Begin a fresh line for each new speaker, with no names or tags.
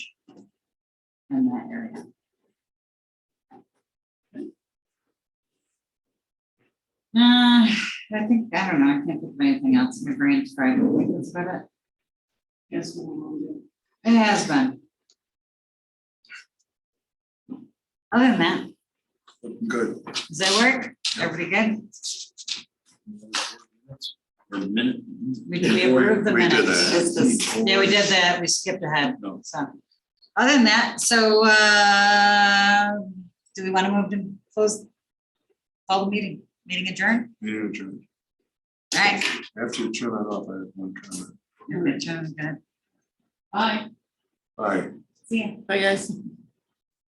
in that area. Uh, I think, I don't know, I can't think of anything else in my brain to try to think that's about it.
Yes, we will do.
It has been. Other than that,
Good.
does that work? Everybody good?
Or minute.
We did we approve the
We did
minutes?
that.
It's just-
Yeah, we did that, we skipped ahead,
No.
so. Other than that, so, uh, do we want to move to close? Call the meeting, meeting adjourned?
Yeah, Jim.
All right.
After you turn that off, I have one comment.
Your picture is good.
Bye.
All right.
See ya.
Bye, guys.